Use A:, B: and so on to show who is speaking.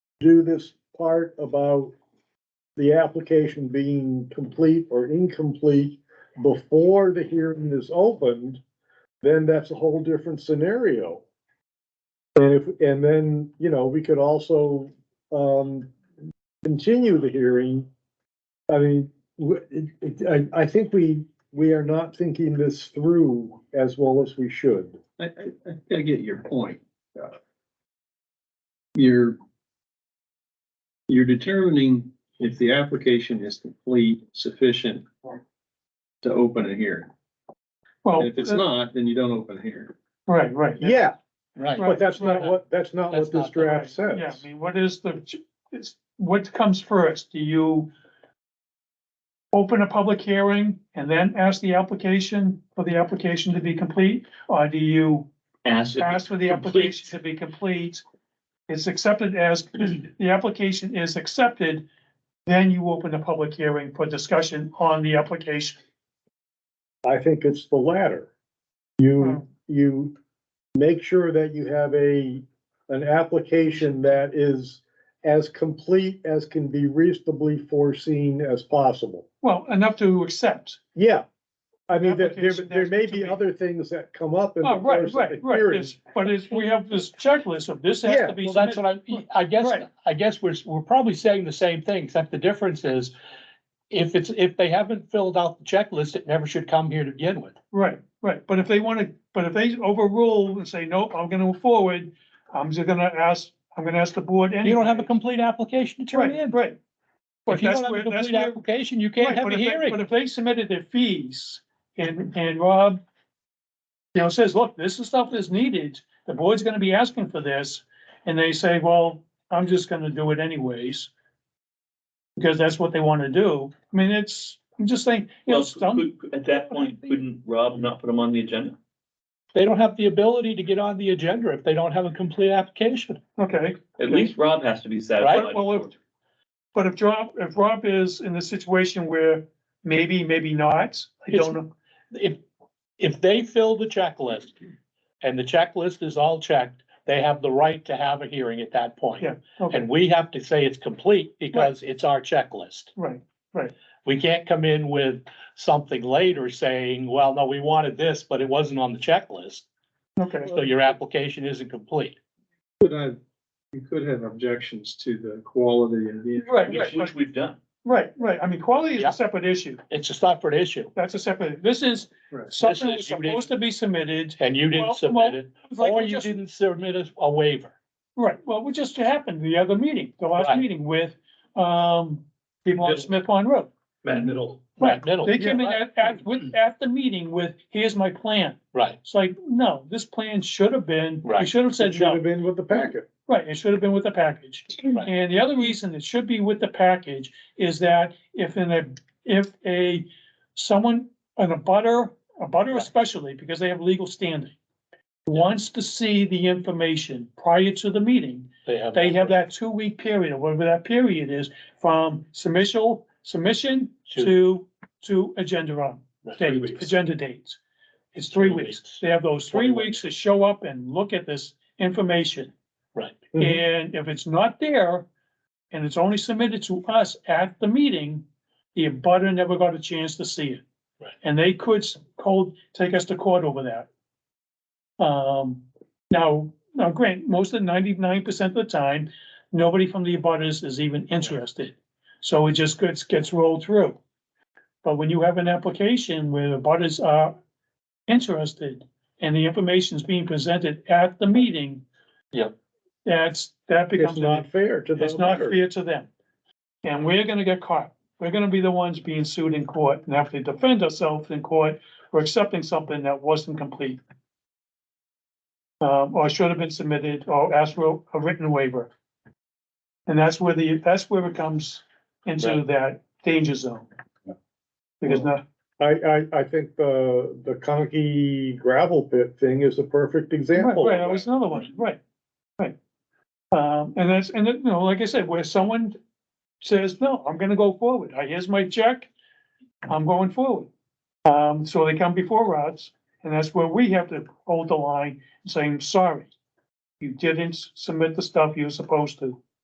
A: do this part about the application being complete or incomplete before the hearing is opened, then that's a whole different scenario. And if, and then, you know, we could also, um, continue the hearing. I mean, w- it, it, I, I think we, we are not thinking this through as well as we should.
B: I, I, I- I get your point. Uh, You're, you're determining if the application is complete, sufficient to open a hearing.
C: Well,
B: If it's
C: uh,
B: not, then you don't open a hearing.
C: Right, right.
A: Yeah,
D: Right.
A: but that's not what, that's not
D: That's
A: what this
D: not the
A: draft
C: Right, Yeah,
A: says.
C: I mean, what is the, is, what comes first? Do you open a public hearing and then ask the application for the application to be complete? Or do you
B: Ask.
C: ask for the application to be complete? It's accepted as, the application is accepted, then you open a public hearing for discussion on the application.
A: I think it's the latter. You,
C: Wow.
A: you make sure that you have a, an application that is as complete as can be reasonably foreseen as possible.
C: Well, enough to accept.
A: Yeah, I mean, there, there,
C: Application
A: there may
C: that's to
A: be
C: be-
A: other things that come up in the
C: Oh, right,
A: course of the
C: right, right.
A: hearing.
C: It's- But it's, we have this checklist of this has
A: Yeah,
C: to be
D: Well, that's
C: submitted.
D: what I, I guess,
C: Right.
D: I guess we're, we're probably saying the same thing, except the difference is if it's, if they haven't filled out the checklist, it never should come here to begin with.
C: Right, right. But if they want to, but if they overrule and say, nope, I'm gonna move forward, I'm just gonna ask, I'm gonna ask the board anyway.
D: You don't have a complete application to turn
C: Right,
D: in.
C: right. But
D: If you
C: that's
D: don't have
C: where,
D: a
C: that's
D: complete
C: where.
D: application, you can't
C: right,
D: have
C: but
D: a
C: if they- But
D: hearing.
C: if they submitted their fees and, and Rob, you know, says, look, this is stuff that's needed, the board's gonna be asking for this, and they say, well, I'm just gonna do it anyways. Because that's what they wanna do. I mean, it's, I'm just saying, you know,
E: Well,
C: some,
E: could- could- at that point, couldn't Rob not put them on the agenda?
D: They don't have the ability to get on the agenda if they don't have a complete application.
C: okay.
E: At least Rob has to be satisfied.
C: Right, well, if-
E: before-
C: But if Rob, if Rob is in the situation where maybe, maybe not, I don't know.
D: If, if they fill the checklist and the checklist is all checked, they have the right to have a hearing at that point.
C: Yeah. Okay,
D: And we have to say it's complete because it's our checklist.
C: right,
D: We can't come in with something later saying, well, no, we wanted this, but it wasn't on the checklist,
C: okay.
D: so your application isn't complete.
B: Could have, you could have objections to the quality of the.
C: Right,
E: Which,
C: right,
E: which
C: right,
E: we've done.
C: right, right. I mean, quality is
D: Yeah.
C: a separate issue.
D: It's a separate issue,
C: That's a separate, this is
B: Right.
C: something
D: This
C: that's
D: is- you didn't-
C: supposed to be submitted.
D: and you
C: Well,
D: didn't
C: well,
D: submit it,
C: It's like
D: or
C: we
D: you
C: just-
D: didn't submit a- a waiver.
C: Right, well, what just happened the other meeting, the last
D: Right.
C: meeting with, um, people on
E: Middle.
C: Smith Pond Road.
E: Matt Middle.
D: Right, middle,
C: They came in
D: Oh, yeah,
C: at, at, with, at the meeting with, here's my plan.
D: right,
C: It's like, no, this plan should have been, we
D: Right.
C: should have
A: It
C: said
A: should have
C: no.
A: been with the packet.
C: Right, it should have been with the package.
D: right,
C: And the other reason it should be with the package is that if in a, if a, someone, an abutter, a butter
D: Right.
C: especially, because they have legal standing, wants to see the information prior to the meeting,
D: they have.
C: they have that two-week period, or whatever that period is, from submission, submission to, to agenda on,
D: Right.
C: date, agenda dates. It's three
D: Three
C: weeks.
D: weeks.
C: They have those three
D: Twenty weeks.
C: weeks to show up and look at this information.
D: Right,
A: Mhm.
C: And if it's not there, and it's only submitted to us at the meeting, the abutter never got a chance to see it.
D: Right.
C: And they could s- cold, take us to court over that. Um, now, now grant, most of ninety-nine percent of the time, nobody from the abutters is even interested. So it just gets, gets rolled through. But when you have an application where the abutters are interested and the information is being presented at the meeting.
D: Yep.
C: That's, that
A: It's
C: becomes,
A: not fair to the.
C: it's not
A: butter.
C: fair to them. And we're gonna get caught. We're gonna be the ones being sued in court and have to defend ourselves in court for accepting something that wasn't complete. Um, or should have been submitted or asked for a written waiver. And that's where the, that's where it comes into
D: Right.
C: that danger zone. Because now,
A: I, I, I think the, the Conkey gravel pit thing is a perfect
C: Right,
A: example.
C: right, that was another one, right, right. Um, and that's, and it, you know, like I said, where someone says, no, I'm gonna go forward, I, here's my check, I'm going forward. Um, so they come before us, and that's where we have to hold the line, saying, sorry, you didn't submit the stuff you were supposed to.